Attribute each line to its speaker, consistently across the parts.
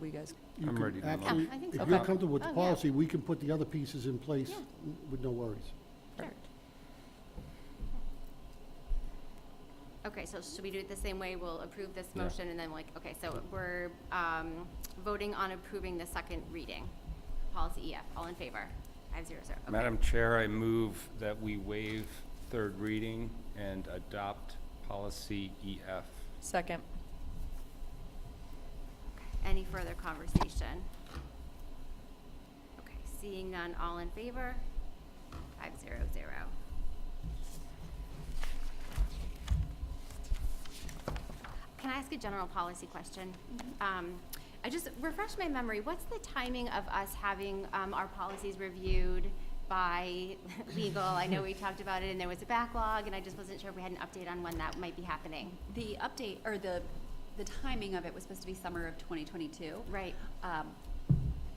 Speaker 1: we guys,
Speaker 2: You
Speaker 3: I'm
Speaker 2: can
Speaker 3: ready to
Speaker 2: actually-
Speaker 3: vote.
Speaker 4: Yeah, I think
Speaker 2: If
Speaker 4: so.
Speaker 2: you're
Speaker 1: Okay.
Speaker 2: comfortable with the
Speaker 4: Oh, yeah.
Speaker 2: policy, we can put the other pieces in place
Speaker 4: Yeah.
Speaker 2: with no worries.
Speaker 4: Sure. Okay, so should we do it the same way? We'll approve this
Speaker 3: Yeah.
Speaker 4: motion and then like, okay, so we're, um, voting on approving the second reading. Policy EF, all in favor? Five zero zero. Okay.
Speaker 3: Madam Chair, I move that we waive third reading and adopt policy E EF.
Speaker 1: second,
Speaker 4: Any further conversation? Okay, seeing none, all in favor? Five zero zero. Can I ask a general policy question? Um, I just, refresh my memory, what's the timing of us having, um, our policies reviewed by legal? I know we talked about it and there was a backlog and I just wasn't sure if we had an update on when that might be happening.
Speaker 5: The update, or the, the timing of it was supposed to be summer of 2022.
Speaker 4: Right.
Speaker 5: Um,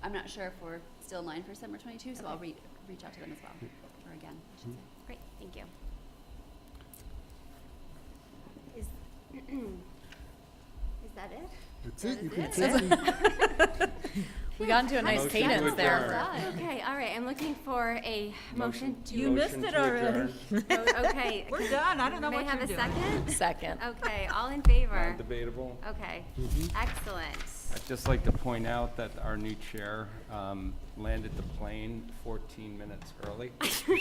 Speaker 5: I'm not sure if we're still in line for summer 22, so I'll
Speaker 4: Okay.
Speaker 5: re- reach out to them as well, or again. I should say.
Speaker 4: Great, thank you. Is, is that it?
Speaker 2: That's it, you can
Speaker 4: That's
Speaker 2: take
Speaker 4: it.
Speaker 2: the-
Speaker 1: we got into a nice
Speaker 3: Motion to
Speaker 1: cadence there.
Speaker 3: adjourn.
Speaker 4: Okay, all right, I'm looking for a motion
Speaker 3: Motion-
Speaker 4: to.
Speaker 6: You missed
Speaker 3: Motion
Speaker 6: it
Speaker 3: to
Speaker 6: already.
Speaker 3: adjourn.
Speaker 4: vote. Okay.
Speaker 6: We're done. I don't know
Speaker 4: May
Speaker 6: what
Speaker 4: I have
Speaker 6: you're
Speaker 4: a
Speaker 6: doing.
Speaker 4: second?
Speaker 1: Second.
Speaker 4: Okay, all in favor?
Speaker 3: Non-debatable.
Speaker 4: Okay,
Speaker 2: Mhm.
Speaker 3: Mm-hmm.
Speaker 4: excellent.
Speaker 3: I'd just like to point out that our new chair um, landed the plane 14 minutes early.
Speaker 2: I'm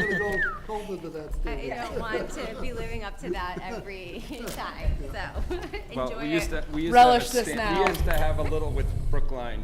Speaker 2: gonna go cold into that
Speaker 4: I
Speaker 2: statement.
Speaker 4: don't want to be living up to that every time, so enjoy it.
Speaker 3: Well, we used to, we used to have a
Speaker 1: Relish this
Speaker 3: stand-
Speaker 1: now.
Speaker 3: We used to have a little with Brookline